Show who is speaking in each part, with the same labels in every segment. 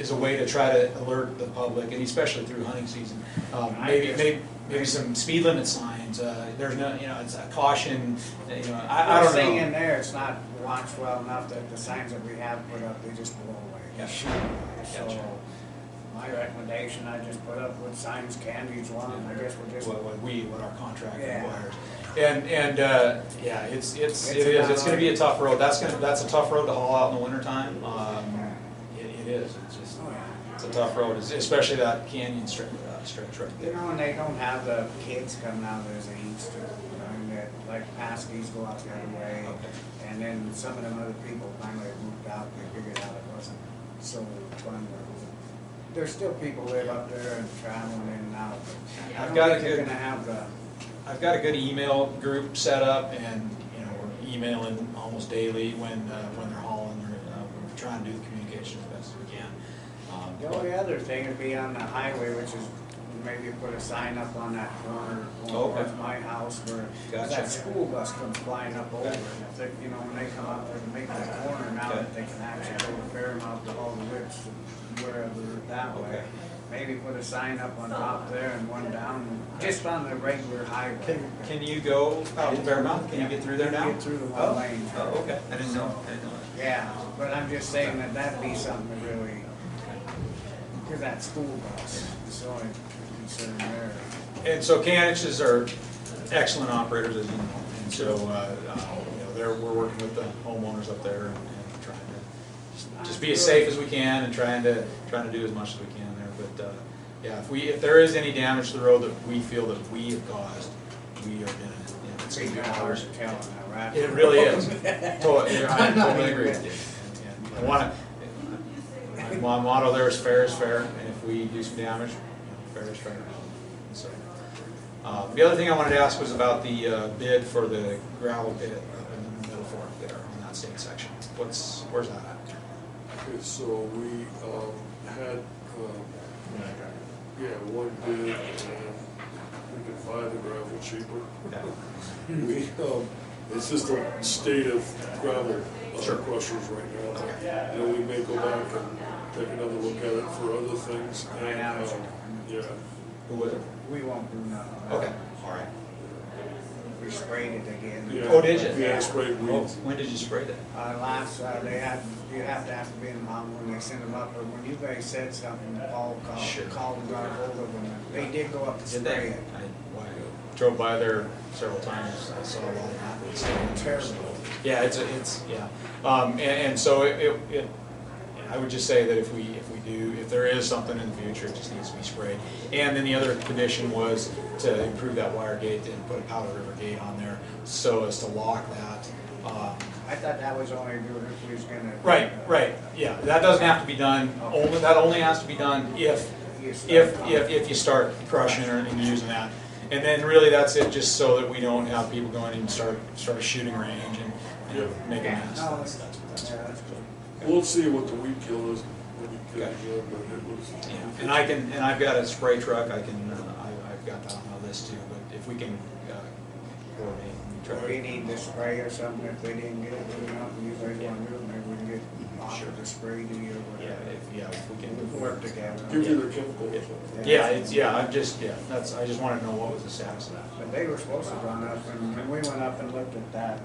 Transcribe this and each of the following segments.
Speaker 1: is a way to try to alert the public, and especially through hunting season. Um, Maybe, maybe, maybe some speed limit signs, uh, there's no, you know, it's a caution, you know, I, I
Speaker 2: First
Speaker 1: don't
Speaker 2: thing
Speaker 1: know.
Speaker 2: in there, it's not watched well enough that the signs that we have put up, they just blow away. They
Speaker 1: Yeah.
Speaker 2: shoot away.
Speaker 1: Gotcha.
Speaker 2: So, my recommendation, I just put up what signs can be drawn, um, I guess we're just.
Speaker 1: What, what we, what our contract
Speaker 2: Yeah.
Speaker 1: requires. And, and, uh, yeah, it's, it's, it
Speaker 2: It's
Speaker 1: is,
Speaker 2: about
Speaker 1: it's gonna be a
Speaker 2: right.
Speaker 1: tough road, that's gonna, that's a tough road to haul out in the wintertime, um, it, it is, it's just,
Speaker 2: Oh, yeah.
Speaker 1: it's a tough road, es- especially that canyon stretch, uh, stretch right
Speaker 2: You
Speaker 1: there.
Speaker 2: know, and they don't have the kids coming out there as they used to, you know, and that, like, Paskies go out the other way.
Speaker 1: Okay.
Speaker 2: And then some of them other people finally moved out, they figured out it wasn't so fun. There's still people live up there and traveling in and out, but I
Speaker 1: I've
Speaker 2: don't
Speaker 1: got a
Speaker 2: think they're
Speaker 1: good-
Speaker 2: gonna have the,
Speaker 1: I've got a good email group set up and, you know, we're emailing almost daily when, uh, when they're hauling, or, uh, we're trying to do the communication as best we can. Um,
Speaker 2: the only other thing would be on the highway, which is maybe put a sign up on that corner going
Speaker 1: Okay.
Speaker 2: towards my house where 'cause
Speaker 1: Gotcha.
Speaker 2: that school bus comes flying up over. And if they, you know, when they come up there to make that corner now
Speaker 1: Okay.
Speaker 2: that they can actually go to Fairmount to all the whips and wherever that
Speaker 1: Okay.
Speaker 2: way. Maybe put a sign up on top there and one down, just on the regular highway.
Speaker 1: Can, can you go out to Fairmount? Can you get through there now?
Speaker 2: Get through the
Speaker 1: Oh,
Speaker 2: one lane.
Speaker 1: Oh, okay. I didn't know, I didn't know
Speaker 2: Yeah, but I'm just saying that that'd be something to really, cause that school bus is the only concern there.
Speaker 1: that. And so Caniches are excellent operators, as you know, and so, uh, uh, you know, they're, we're working with the homeowners up there and and trying to just- just be as safe as we can and trying to, trying to do as much as we can there, but, uh, yeah, if we, if there is any damage to the road that we feel that we have caused, we are gonna, you know, it's gonna
Speaker 2: Three
Speaker 1: be
Speaker 2: hours
Speaker 1: ours.
Speaker 2: of telling that, right?
Speaker 1: It really is. Totally, I totally agree with you. And- and I wanna, my motto there is fair is fair, and if we do some damage, you know, fair is fair. And so, uh, The other thing I wanted to ask was about the uh, bid for the gravel pit up in the middle fork there on that state section. What's, where's that at?
Speaker 3: Okay, so we um, had, um, yeah, one bid, and we could buy the gravel cheaper.
Speaker 1: Yeah.
Speaker 3: We, um, it's just a state of gravel uh,
Speaker 1: Sure.
Speaker 3: crushers right now. And we may go back and take another look at it for other things. and,
Speaker 2: Right now, it's-
Speaker 3: um, Yeah,
Speaker 1: Who was it?
Speaker 2: We won't do nothing.
Speaker 1: Okay, all right.
Speaker 2: We sprayed it again.
Speaker 3: Yeah.
Speaker 1: Oh, did you?
Speaker 3: Yeah, I sprayed
Speaker 1: Oh,
Speaker 3: weeds.
Speaker 1: When did you spray that?
Speaker 2: Uh, last, uh, they have, you have to have to be in mom when they send them up, but when you guys said something, Paul
Speaker 1: Sure.
Speaker 2: called, called and got ahold of them, and they did go up and
Speaker 1: Did
Speaker 2: spray
Speaker 1: they?
Speaker 2: it.
Speaker 1: I well, I drove by there several times, I saw a lot of that. It's
Speaker 2: Terrible.
Speaker 1: Yeah, it's, a- it's, yeah. Um, and, and so it, it, it- I would just say that if we, if we do, if there is something in the future, it just needs to be sprayed. And then the other condition was to improve that wire gate and put a Powder River gate on there so as to lock that. Um,
Speaker 2: I thought that was only doing if we was gonna.
Speaker 1: Right, right, yeah, that doesn't have to be done, only, that only has to be done if
Speaker 2: If,
Speaker 1: if, if, if you start crushing or and using that. And then really that's it, just so that we don't have people going and start, start a shooting range and, and make a
Speaker 2: Yeah,
Speaker 1: mess.
Speaker 2: no,
Speaker 1: That's, that's,
Speaker 2: Yeah,
Speaker 1: that's.
Speaker 2: that's good.
Speaker 3: We'll see what the weed kill is when we get
Speaker 1: Okay.
Speaker 3: it, but it was.
Speaker 1: Yeah, and I can, and I've got a spray truck, I can, uh, I, I've got that on my list too, but if we can, uh, coordinate and
Speaker 2: Or we
Speaker 1: try.
Speaker 2: need to spray or something, if they didn't get it, we don't, know, you guys wanna do it, maybe we can get
Speaker 1: Sure.
Speaker 2: offered to spray to you or
Speaker 1: Yeah,
Speaker 2: whatever.
Speaker 1: if, yeah, if we
Speaker 2: We'll
Speaker 1: can.
Speaker 2: Work together.
Speaker 3: Give you the chemicals.
Speaker 1: Yeah, it's, yeah, I'm just, yeah, that's, I just wanna know what was the status of that.
Speaker 2: But they were supposed to run up, and when we went up and looked at that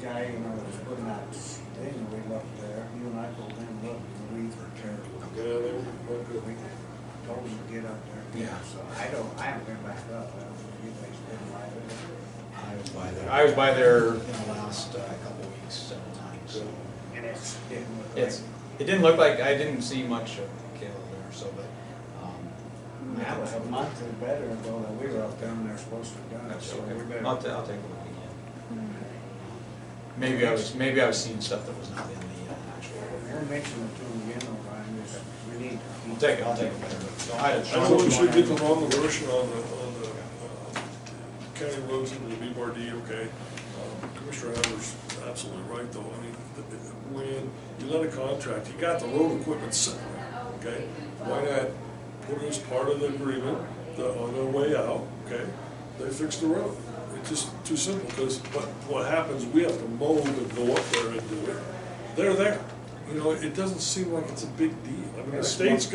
Speaker 2: guy, you know, that was putting that thing, we looked there, you and I pulled in, and looked, and the weeds were terrible.
Speaker 3: Yeah, they were not
Speaker 2: We
Speaker 3: good.
Speaker 2: told them to get up there.
Speaker 1: Yeah.
Speaker 2: So I don't, I haven't been back up, I don't know if you guys been like it.
Speaker 1: I was by there, I was by there in the last uh, couple of weeks several times, so.
Speaker 2: And it's, didn't look like.
Speaker 1: It's, it didn't look like, I didn't see much of Kale there, so, but, um.
Speaker 2: That was a month or better ago that we were up there, and they're supposed to have done it,
Speaker 1: That's
Speaker 2: so
Speaker 1: okay.
Speaker 2: we better.
Speaker 1: I'll, ta- I'll take a look again. Maybe I was, maybe I was seeing stuff that was not in the uh, actual.
Speaker 2: We'll mention it to them again, O'Brien, just, we need. to
Speaker 1: I'll
Speaker 2: keep-
Speaker 1: take, it. I'll take a better look. So I,
Speaker 3: I know we should get the wrong version on the, on the uh, county roads and the BRD, okay? Um, Commissioner Adler's absolutely right, though, I mean, the- the- when you let a contract, you got the road equipment separate, okay? Why not put it as part of the agreement, the, on their way out, okay? They fix the road, it's just too simple, because what, what happens, we have to mold and go up there and do it. They're there, you know, it doesn't seem like it's a big deal. I mean, the state's